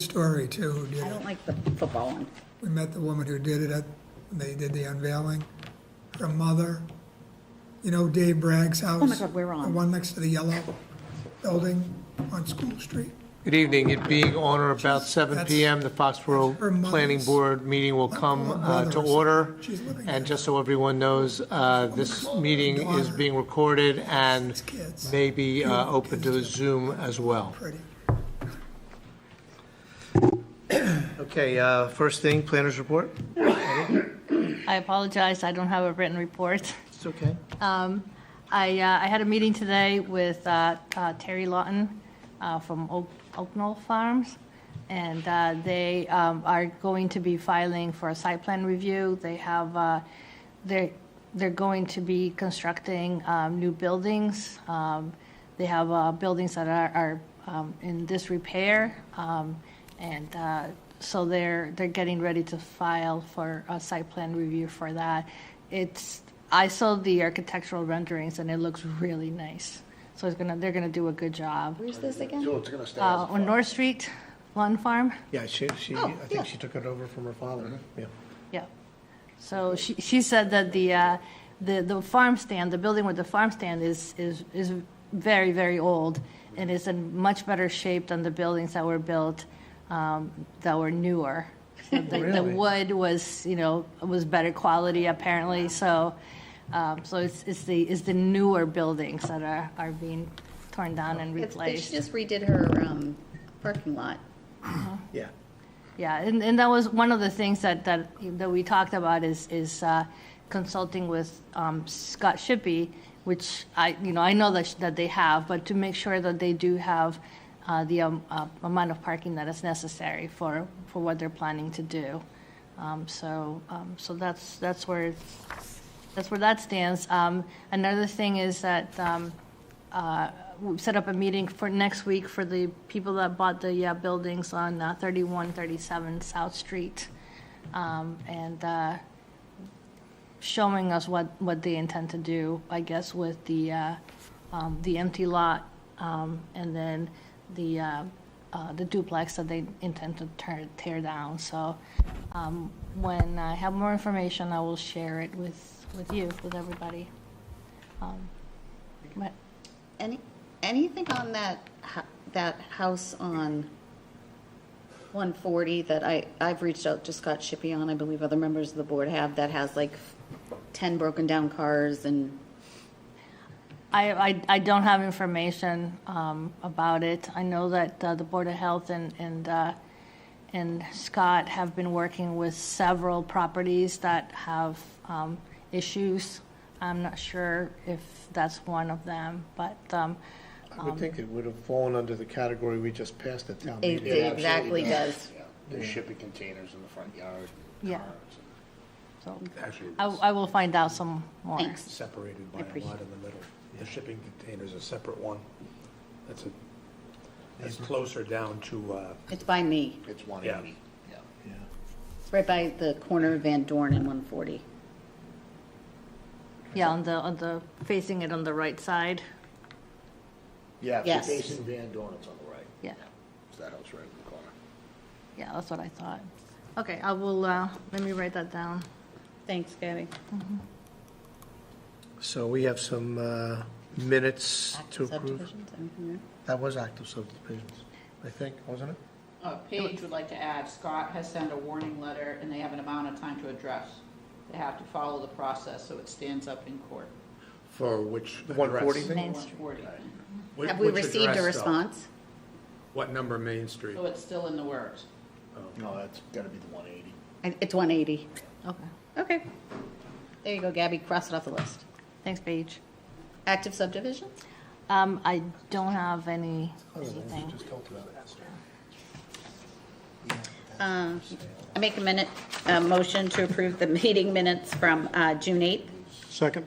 Story too, who did I it. don't like the football one. We met the woman who did it at, they did the unveiling, her mother. You know Dave Bragg's house? Oh God, we're on. The one next to the yellow building on School Street. Good evening. It being on or about 7 That's- PM, the her Foxborough mother's- Planning Board meeting will come Her uh, to brother's- order. she's living there. And just so everyone knows, uh, this meeting is Daughter. being recorded and These kids. may be uh, open to kids. Zoom as well. Pretty. Okay, uh, first thing, planners report? I apologize, I don't have a written report. It's okay. I, uh, I had a meeting today with uh, uh, Terry Lawton uh, from Oak Oak Knoll Farms, and uh, they um, are going to be filing for a site plan review. They have, uh, they're, they're going to be constructing um, new buildings. Um, They have uh, buildings that are are um, in disrepair, um, and uh, so they're, they're getting ready to file for a site plan review for that. It's, I saw the architectural renderings, and it looks really nice. So it's gonna, they're gonna do a good job. Where's this again? Uh, On North Street, Lawn Farm, Yeah, Mm-hmm. she, she, Oh, I yeah. think she took it over from her father. Yeah. yeah. So she, she said that the, uh, the, the farm stand, the building with the farm stand is, is, is very, very old, and is in much better shape than the buildings that were built, um, that were newer. So the- The Really? wood was, you know, was better quality apparently, so, um, so it's, it's the, it's the newer buildings that are, are being torn down and It's- they- She replaced. just redid her um, parking lot. Yeah. Yeah, and, and that was one of the things that, that, that we talked about is, is uh, consulting with um, Scott Shippey, which I, you know, I know that, sh- that they have, but to make sure that they do have uh, the um, uh, amount of parking that is necessary for, for what they're planning to do. Um, So, um, so that's, that's where, that's where that stands. Um, Another thing is that um, uh, we set up a meeting for next week for the people that bought the uh, buildings on uh, 3137 South Street, um, and uh, showing us what, what they intend to do, I guess, with the, uh, um, the empty lot, um, and then the, uh, uh, the duplex that they intend to tear, tear down. So um, when I have more information, I will share it with, with you, with everybody. Um, But Any, anything on that, ho- that house on 140 that I, I've reached out to Scott Shippey on, I believe other members of the board have, that has like 10 broken down cars and, I, I, I don't have information um, about it. I know that uh, the Board of Health and, and, uh, and Scott have been working with several properties that have um, issues. I'm not sure if that's one of them, but um, I would think it would have fallen under the category we just passed at town it meeting. it exactly does. Yeah, There's shipping containers in the front yard. and Yeah. Oh, cars so and- Actually, I, I will find out some more. Thanks. separated I by a appreciate lot in the middle. The shipping container's a separate one. That's a, that's closer down to, uh, It's by me, it's one Yeah. eighty. Yeah. it's right by the corner of Van Dorn and 140. Yeah, on the, on the, facing it on the right side, Yeah, if Yes. you're facing Van Dorn, it's on the right. yeah. It's that house right in the corner. Yeah, that's what I thought. Okay, I will, uh, let me write that down. Thanks, Gabby. So we have some uh, minutes to approve. Subdivisions, anything there? That was active subdivisions, I think, wasn't it? Uh, Paige would like to add, Scott has sent a warning letter, and they have an amount of time to address. They have to follow the process, so it stands up in court. For which? The 140 address? thing? Main Street. 140. Whi- Have we which received address, a though? response? What number Main Street? So it's still in the works. No, that's gotta be the one eighty. I- It's 180. Okay, Okay. There you go, Gabby, cross it off the list. thanks, Paige. Active subdivisions? Um, I don't have any, anything. Just talked about it. Uh, I make a minute, a motion to approve the meeting minutes from uh, June 8th. Second.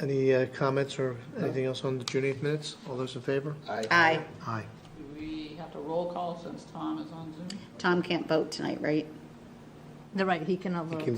Any uh, comments or anything else on the June 8th minutes? All those in favor? Aye. Aye. Do we have to roll call since Tom is on Zoom? Tom can't vote tonight, right? They're right, he cannot vote.